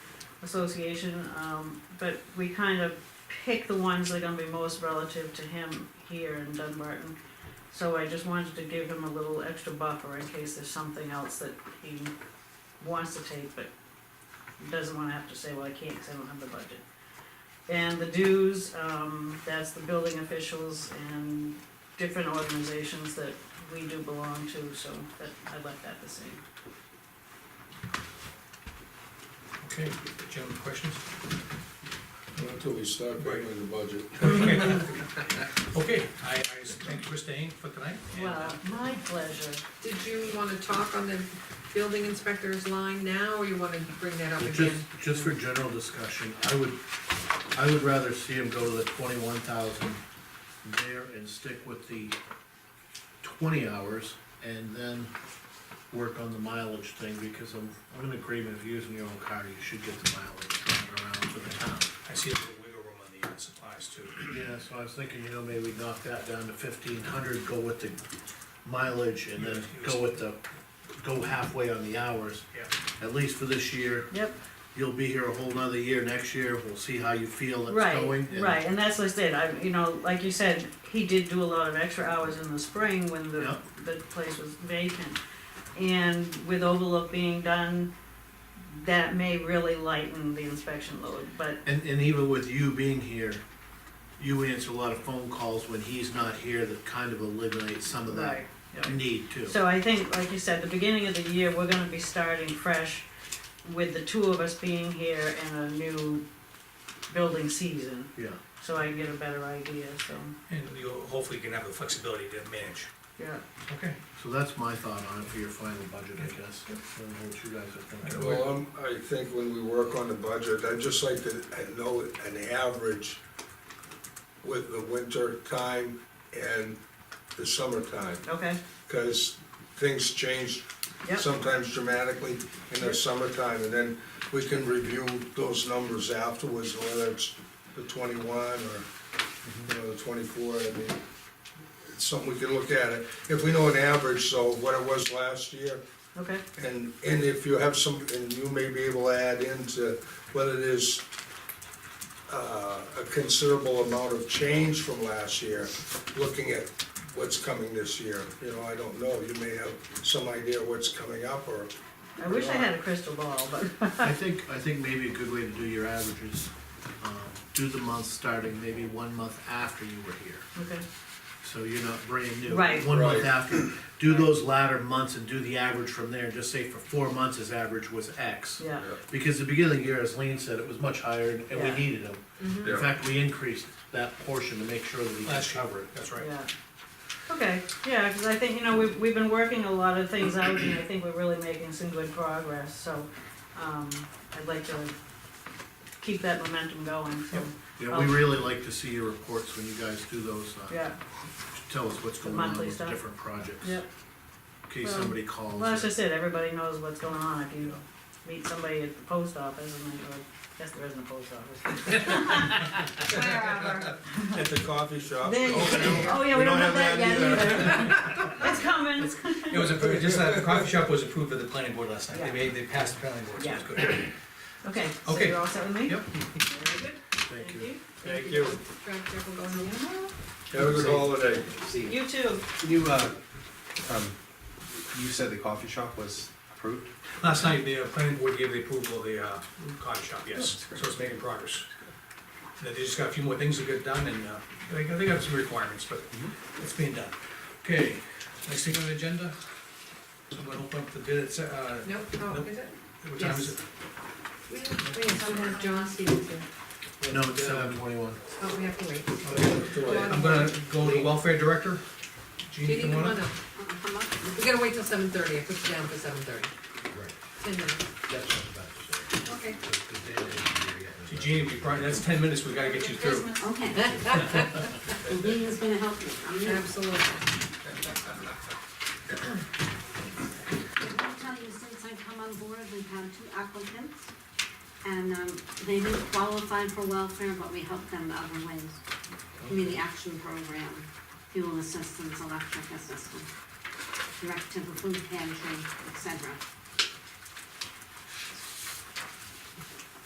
association, um, but we kind of pick the ones that are gonna be most relative to him here in Dunbarton. So I just wanted to give him a little extra buffer in case there's something else that he wants to take, but doesn't wanna have to say, well, I can't, cause I don't have the budget. And the dues, um, that's the building officials and different organizations that we do belong to, so that, I left that the same. Okay, gentlemen, questions? Not until we start paying the budget. Okay, I, I thank you for staying for tonight. and, uh, Well, my pleasure. Did you wanna talk on the building inspector's line now, or you wanna bring that up again? Just, just for general discussion, I would, I would rather see him go to the twenty-one thousand there and stick with the twenty hours and then work on the mileage thing, because I'm, I'm in agreement, if you're using your own car, you should get the mileage driving around for the town. I see a little wiggle room on the uh, supplies too. Yeah, so I was thinking, you know, maybe knock that down to fifteen hundred, go with the mileage and then go with the, go halfway on the hours, Yeah. at least for this year. Yep, you'll be here a whole nother year next year, we'll see how you feel it's right, going. and- right, and that's what I said, I, you know, like you said, he did do a lot of extra hours in the spring when the, Yeah. the place was vacant. And with overlook being done, that may really lighten the inspection load, but, And, and even with you being here, you answer a lot of phone calls when he's not here that kind of eliminates some of that right, yeah. need too. So I think, like you said, the beginning of the year, we're gonna be starting fresh with the two of us being here and a new building season, Yeah, so I can get a better idea, so, And you, hopefully you can have the flexibility to manage. yeah. Okay. so that's my thought on it for your final budget, I guess. And what you guys are thinking. Well, I'm, I think when we work on the budget, I'd just like to know an average with the winter time and the summertime, Okay, because things change yep, sometimes dramatically in the summertime, and then we can review those numbers afterwards, whether it's the twenty-one or, you know, the twenty-four, I mean, it's something we can look at it. If we know an average, so what it was last year, okay, and, and if you have some, and you may be able to add into whether there's uh, a considerable amount of change from last year, looking at what's coming this year, you know, I don't know, you may have some idea what's coming up, or, I wish I had a crystal ball, but, I think, I think maybe a good way to do your averages, um, do the month starting maybe one month after you were here. okay, So you're not brand new. Right. One month Right. after, do those latter months and do the average from there, just say for four months his average was X. yeah, Because the beginning of the year, as Lean said, it was much higher and and Yeah. we Mm-hmm. needed them. In Yeah. fact, we increased that portion to make sure that we could Last year, cover it. that's right. yeah. Okay, yeah, because I think, you know, we've, we've been working a lot of things out, and I think we're really making some good progress, so, um, I'd like to keep that momentum going, so, Yep. Yeah, we really like to see your reports when you guys do those, uh, Oh. yeah, tell us what's The going on monthly with the stuff. different projects. yeah. In case Well, somebody calls. Well, that's or- just it, everybody knows what's going on, if you meet somebody at the post office, and they go, yes, there isn't a post office. Wherever. at the coffee shop. There you go. oh, yeah, we don't have that yet either. It's coming. It was, approved- just that the coffee shop was approved by the planning board last night. They Yeah. made, they passed the planning board, so it's good. Okay, so Okay. you're all set with me? Yep. Very good, Thank you. Thank you. Drive careful going home. Have a good holiday. You too. Can you, uh, um, you said the coffee shop was approved? Last night, the uh, planning board gave the approval of the uh, coffee shop, yes, so it's making progress. And They just got a few more things to get done, and uh, they they got some requirements, but it's being done. Okay, next thing on the agenda, I'm gonna open up the bid, it's, uh, Nope, oh, is it? what time is Yes. it? We have, we have someone, John Stevens here. No, it's seven twenty-one. Oh, we have to wait. I'm gonna go to welfare director. Jeannie, Judy, come on up. We gotta wait till seven thirty, I put you down for seven thirty. Ten minutes. Okay. See, Jeannie, we probably, that's ten minutes, we gotta get you through. Okay. And Dean is gonna help me, I'm new. Absolutely. I'll tell you, since I've come on board, we've had two applicants, and um, they didn't qualify for welfare, but we helped them other ways. Community Action Program, fuel assistance, electric assistance, direct to the food pantry, et cetera.